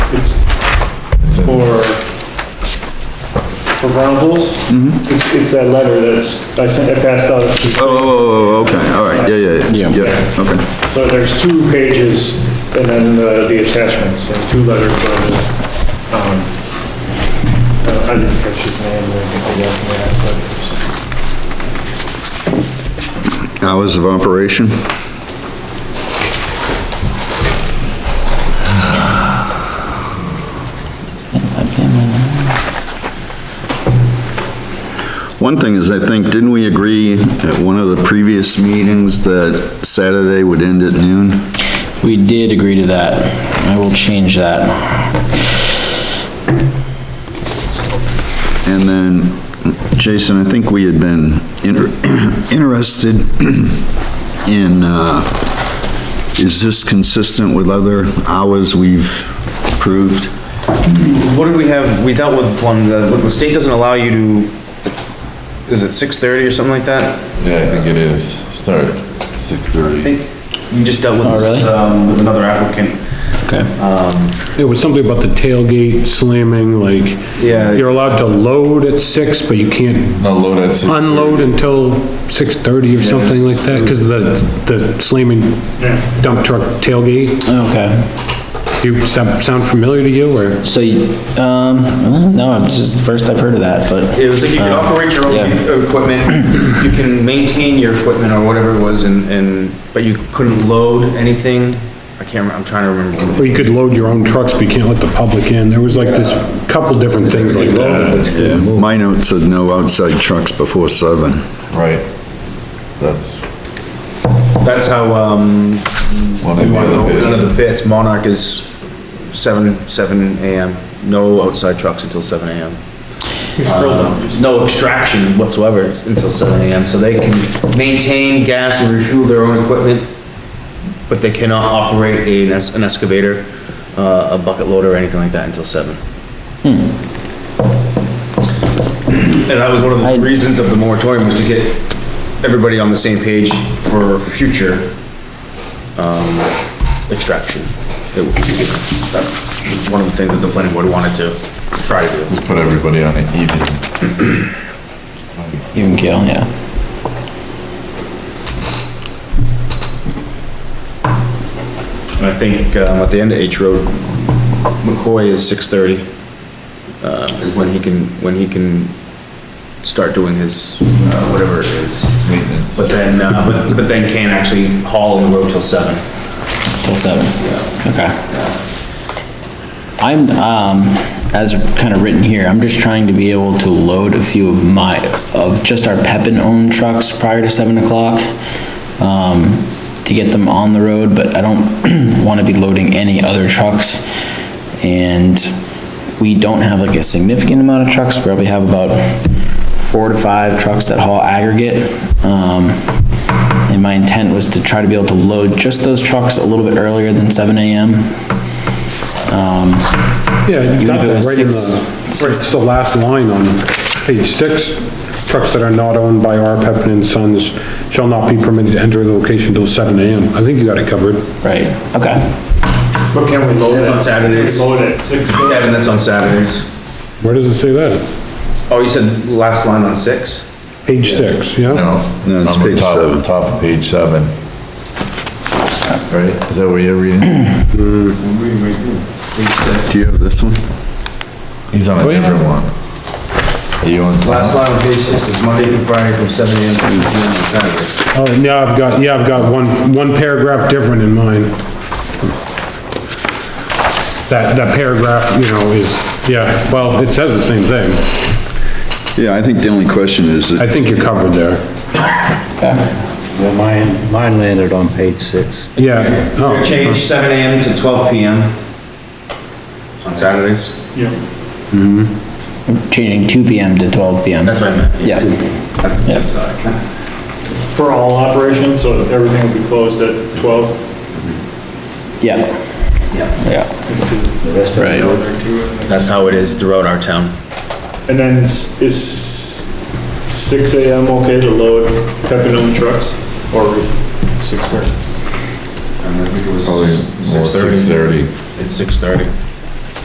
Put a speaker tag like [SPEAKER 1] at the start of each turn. [SPEAKER 1] It's For, for Venables. It's, it's that letter that's, I sent, I passed out, just-
[SPEAKER 2] Oh, oh, oh, oh, okay, all right, yeah, yeah, yeah,
[SPEAKER 3] Yeah.
[SPEAKER 2] yeah, okay.
[SPEAKER 1] so there's two pages and then uh, the attachments and two letters. from, um, uh, I didn't catch his name or anything like that,
[SPEAKER 2] Hours of operation? One thing is, I think, didn't we agree at one of the previous meetings that Saturday would end at noon?
[SPEAKER 3] We did agree to that. I will change that.
[SPEAKER 2] And then, Jason, I think we had been inter- interested in, uh, is this consistent with other hours we've approved?
[SPEAKER 4] What did we have, we dealt with one, the, the state doesn't allow you to, is it six thirty or something like that?
[SPEAKER 5] Yeah, I think it is. Start six
[SPEAKER 4] I
[SPEAKER 5] thirty.
[SPEAKER 4] think you just dealt with,
[SPEAKER 3] Oh, really?
[SPEAKER 4] this, um, with another applicant.
[SPEAKER 3] Okay.
[SPEAKER 6] It was something about the tailgate slamming, like,
[SPEAKER 4] Yeah.
[SPEAKER 6] you're allowed to load at six, but you can't
[SPEAKER 5] Not load at six thirty.
[SPEAKER 6] unload until six thirty or something like that, because the, the slamming dump truck tailgate.
[SPEAKER 3] Okay.
[SPEAKER 6] You, sound sound familiar to you, or?
[SPEAKER 3] So, you- um, no, it's just the first I've heard of that, but
[SPEAKER 4] It was like you can
[SPEAKER 3] Uh,
[SPEAKER 4] operate your own
[SPEAKER 3] yeah.
[SPEAKER 4] equipment, you can maintain your equipment or whatever it was and, and, but you couldn't load anything. I can't remember, I'm trying to remember.
[SPEAKER 6] Or you could load your own trucks, but you can't let the public in. There was like this couple different things like that.
[SPEAKER 2] Yeah, my note said no outside trucks before seven.
[SPEAKER 5] Right. That's
[SPEAKER 4] That's how, um,
[SPEAKER 5] one of the other
[SPEAKER 4] none of
[SPEAKER 5] bids.
[SPEAKER 4] the fits, Monarch is seven, seven AM, no outside trucks until seven AM. There's no extraction whatsoever until seven AM, so they can maintain gas and refuel their own equipment, but they cannot operate a- an es- an excavator, uh, a bucket loader, or anything like that until seven. Hmm. And that was one of
[SPEAKER 3] I-
[SPEAKER 4] the reasons of the moratorium was to get everybody on the same page for future, um, extraction. It would be- that was One of the things that the planning board wanted to try to do.
[SPEAKER 5] Just put everybody on an even.
[SPEAKER 3] even keel, yeah.
[SPEAKER 4] And I think, um, at the end of H Road, McCoy is six thirty, uh, is when he can, when he can start doing his, uh, whatever it is.
[SPEAKER 5] maintenance.
[SPEAKER 4] But then, uh, but, but then can actually haul on the road till seven.
[SPEAKER 3] Till seven. Okay. I'm, um, as kind of written here, I'm just trying to be able to load a few of my, of just our Pepin-owned trucks prior to seven o'clock, um, to get them on the road, but I don't want to be loading any other trucks. And we don't have like a significant amount of trucks, probably have about four to five trucks that haul aggregate. Um, and my intent was to try to be able to load just those trucks a little bit earlier than seven AM.
[SPEAKER 6] Yeah, you
[SPEAKER 3] Even
[SPEAKER 6] got
[SPEAKER 3] if it
[SPEAKER 6] that
[SPEAKER 3] was
[SPEAKER 6] right in the, uh,
[SPEAKER 3] six-
[SPEAKER 6] right, it's the last line on page six. Trucks that are not owned by R. Peppin and Sons shall not be permitted to enter the location till seven AM. I think you got it covered.
[SPEAKER 3] Right, okay.
[SPEAKER 1] but, but can we load it?
[SPEAKER 4] That's on Saturdays.
[SPEAKER 1] Can we Load it at six.
[SPEAKER 4] Kevin, that's on Saturdays.
[SPEAKER 6] Where does it say that?
[SPEAKER 4] Oh, you said last line on six?
[SPEAKER 6] Page six, yeah?
[SPEAKER 5] No.
[SPEAKER 2] No, it's
[SPEAKER 5] on the
[SPEAKER 2] page
[SPEAKER 5] top-
[SPEAKER 2] seven.
[SPEAKER 5] Top of page seven. Right? Is that what you're reading?
[SPEAKER 2] Do you have this one?
[SPEAKER 5] He's on a
[SPEAKER 6] yeah.
[SPEAKER 5] different one. Are you on?
[SPEAKER 4] Last line on page six is Monday through Friday from seven AM to eight PM on Saturdays.
[SPEAKER 6] Oh, yeah, I've got, yeah, I've got one, one paragraph different in mine. That, that paragraph, you know, is, yeah, well, it says the same thing.
[SPEAKER 2] Yeah, I think the only question is,
[SPEAKER 6] I
[SPEAKER 2] that-
[SPEAKER 6] think you're covered there.
[SPEAKER 7] Well, mine, mine landed on page six.
[SPEAKER 6] Yeah.
[SPEAKER 4] We're gonna
[SPEAKER 6] oh,
[SPEAKER 4] change seven AM to twelve PM on Saturdays.
[SPEAKER 3] Changing two PM to twelve PM.
[SPEAKER 4] That's what I meant.
[SPEAKER 3] Yeah.
[SPEAKER 4] That's,
[SPEAKER 3] Yeah.
[SPEAKER 4] I'm sorry.
[SPEAKER 1] For all operations, so everything will be closed at twelve.
[SPEAKER 3] Yeah.
[SPEAKER 4] Yeah.
[SPEAKER 3] Yeah.
[SPEAKER 7] The rest of
[SPEAKER 3] Right.
[SPEAKER 4] That's how it is throughout our town.
[SPEAKER 1] And then s- is six AM okay to load pepperoni trucks or six thirty?
[SPEAKER 4] I think it was
[SPEAKER 5] Probably more six thirty.
[SPEAKER 4] It's six thirty.